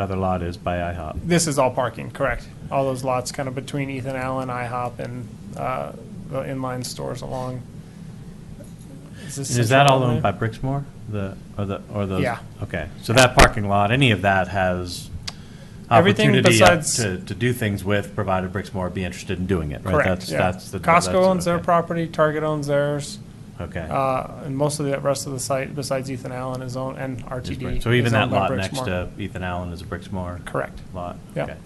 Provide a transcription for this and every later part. other lot is by IHOP. This is all parking, correct? All those lots kind of between Ethan Allen, IHOP, and uh, the inline stores along. this Is that all Central owned by Avenue? Brixmore? The, or the, or those? Yeah. Okay, so that parking lot, any of that has Everything opportunity up besides- to, to do things with, provided Brixmore be interested in doing it, right? Correct, That's- yeah. That's the. Costco that's- owns their okay. property, Target owns theirs, Okay. uh, and most of the rest of the site besides Ethan Allen is owned, and Is RTD. Brix- So even is that owned by lot next Brixmor. to Ethan Allen is a Brixmore Correct, lot? Yeah. Okay.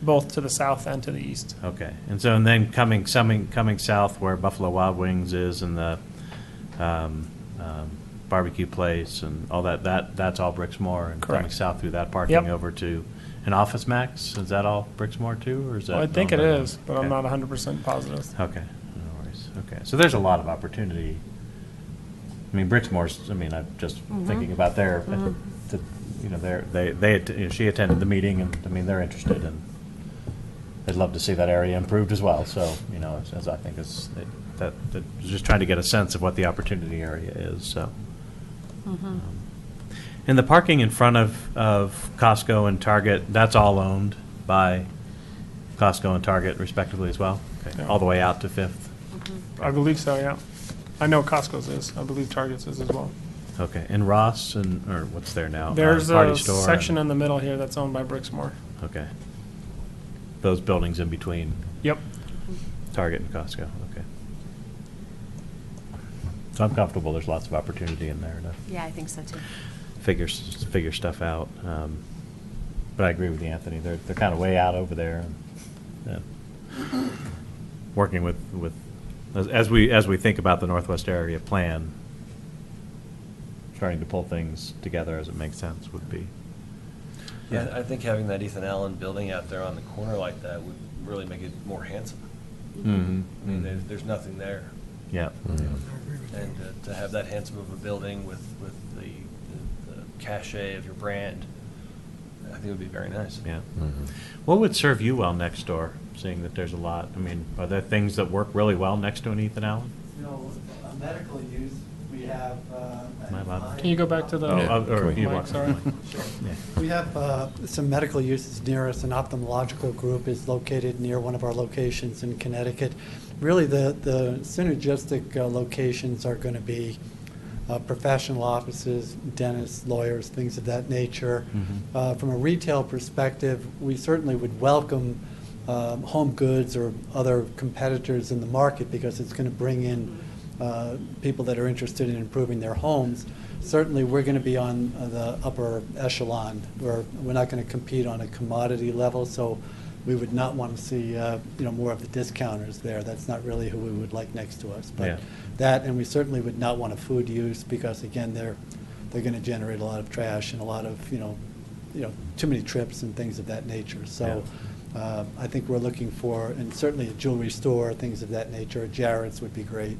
both to the south and to the east. Okay, and so, and then coming, coming, coming south where Buffalo Wild Wings is and the um, um, barbecue place and all that, that, that's all Brixmore? And coming Correct. south through that parking Yep. over to, and Office Max, is that all Brixmore too, or is that? Well, I think it owned by them? is, but I'm Okay. not 100% positive. Okay, no worries, okay. So there's a lot of opportunity. I mean, Brixmore's, I mean, I'm just thinking about their, at the- the- you know, their, they, they, att- you know, she attended the meeting, and, I mean, they're interested, and they'd love to see that area improved as well, so, you know, as- as I think is, it- that, that, just trying to get a sense of what the opportunity area is, so. Um, And the parking in front of, of Costco and Target, that's all owned by Costco and Target respectively as well? Okay, All the way out to Fifth? I believe so, yeah. I know Costco's is, I believe Target's is as well. Okay, and Ross and, or what's there now? Uh, There's Party a Store and- section in the middle here that's owned by Brixmore. Okay. Those buildings in between Yep. Target and Costco, okay. So I'm comfortable, there's lots of opportunity in there to Yeah, I think so too. figure, s- figure stuff out. um, But I agree with you, Anthony, they're, they're kind of way out over there. and, yeah. Working with, with, as- as we, as we think about the Northwest Area Plan, trying to pull things together as it makes sense would be. Yeah, I think having that Ethan Allen building out there on the corner like that would really make it more handsome. Mm-hmm. I mean, there's, there's nothing there. Mm-hmm. Yeah. And uh, to have that handsome of a building with, with the, the cachet of your brand, I think would be very nice. Yeah. What would serve you well next door, seeing that there's a lot? I mean, are there things that work really well next to an Ethan Allen? you know, a medical use, we have. uh, Am I allowed? Can you go back to the? Oh, uh, or Mike, you want- sorry. Sure. Yeah. We have uh, some medical uses near us. An ophthalmological group is located near one of our locations in Connecticut. Really, the, the synergistic uh, locations are going to be uh, professional offices, dentists, lawyers, things of that nature. Mm-hmm. Mhm. Uh, From a retail perspective, we certainly would welcome um, home goods or other competitors in the market because it's going to bring in uh, people that are interested in improving their homes. Certainly, we're going to be on uh, the upper echelon. We're, we're not going to compete on a commodity level, so we would not want to see, uh, you know, more of the discounters there. That's not really who we would like next to us. Yeah. But that, and we certainly would not want a food use because, again, they're, they're going to generate a lot of trash and a lot of, you know, you know, too many trips and things of that nature. So uh, I think we're looking for, and certainly a jewelry store, things of that nature, Jared's would be great.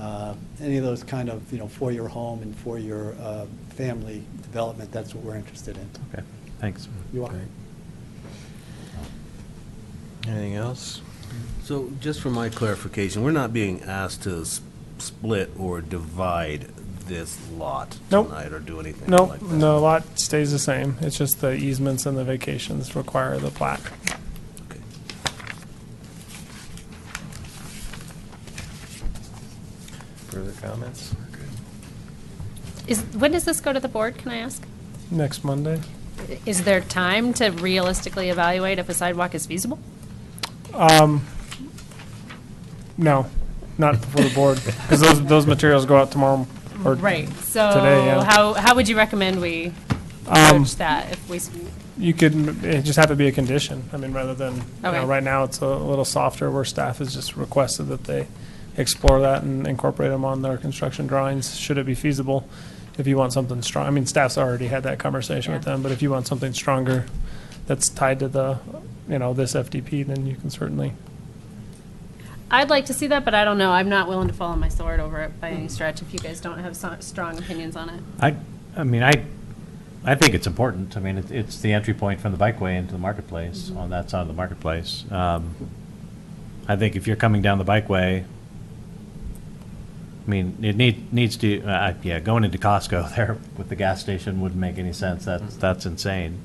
Uh, Any of those kind of, you know, for your home and for your uh, family development, that's what we're interested in. Okay, thanks. You want- Anything else? So just for my clarification, we're not being asked to s- split or divide this lot Nope. tonight or do anything No, like that? no, a lot stays the same. It's just the easements and the vacations require the plat. Okay. Further comments? Is, when does this go to the board, can I ask? Next Monday? Is there time to realistically evaluate if a sidewalk is feasible? No, not before the board, because those, those materials go out tomorrow. or- So Today, yeah. Um, how, how would you recommend we approach that if we, s- You could, it just have to be a condition. I mean, rather than, you know, Okay. right now, it's a little softer where staff has just requested that they explore that and incorporate them on their construction drawings, should it be feasible. If you want something strong, I mean, staff's already had that conversation with Yeah. them, but if you want something stronger that's tied to the, you know, this FDP, then you can certainly I'd like to see that, but I don't know. I'm not willing to fall on my sword over it by any stretch if you guys don't have so- strong opinions on it. I, I mean, I, I think it's important. I mean, it- it's the entry point from the bikeway into the marketplace, on that side of the marketplace. Um, I think if you're coming down the bikeway, I mean, it need, needs to, uh, yeah, going into Costco there with the gas station wouldn't make any sense. That's, that's insane.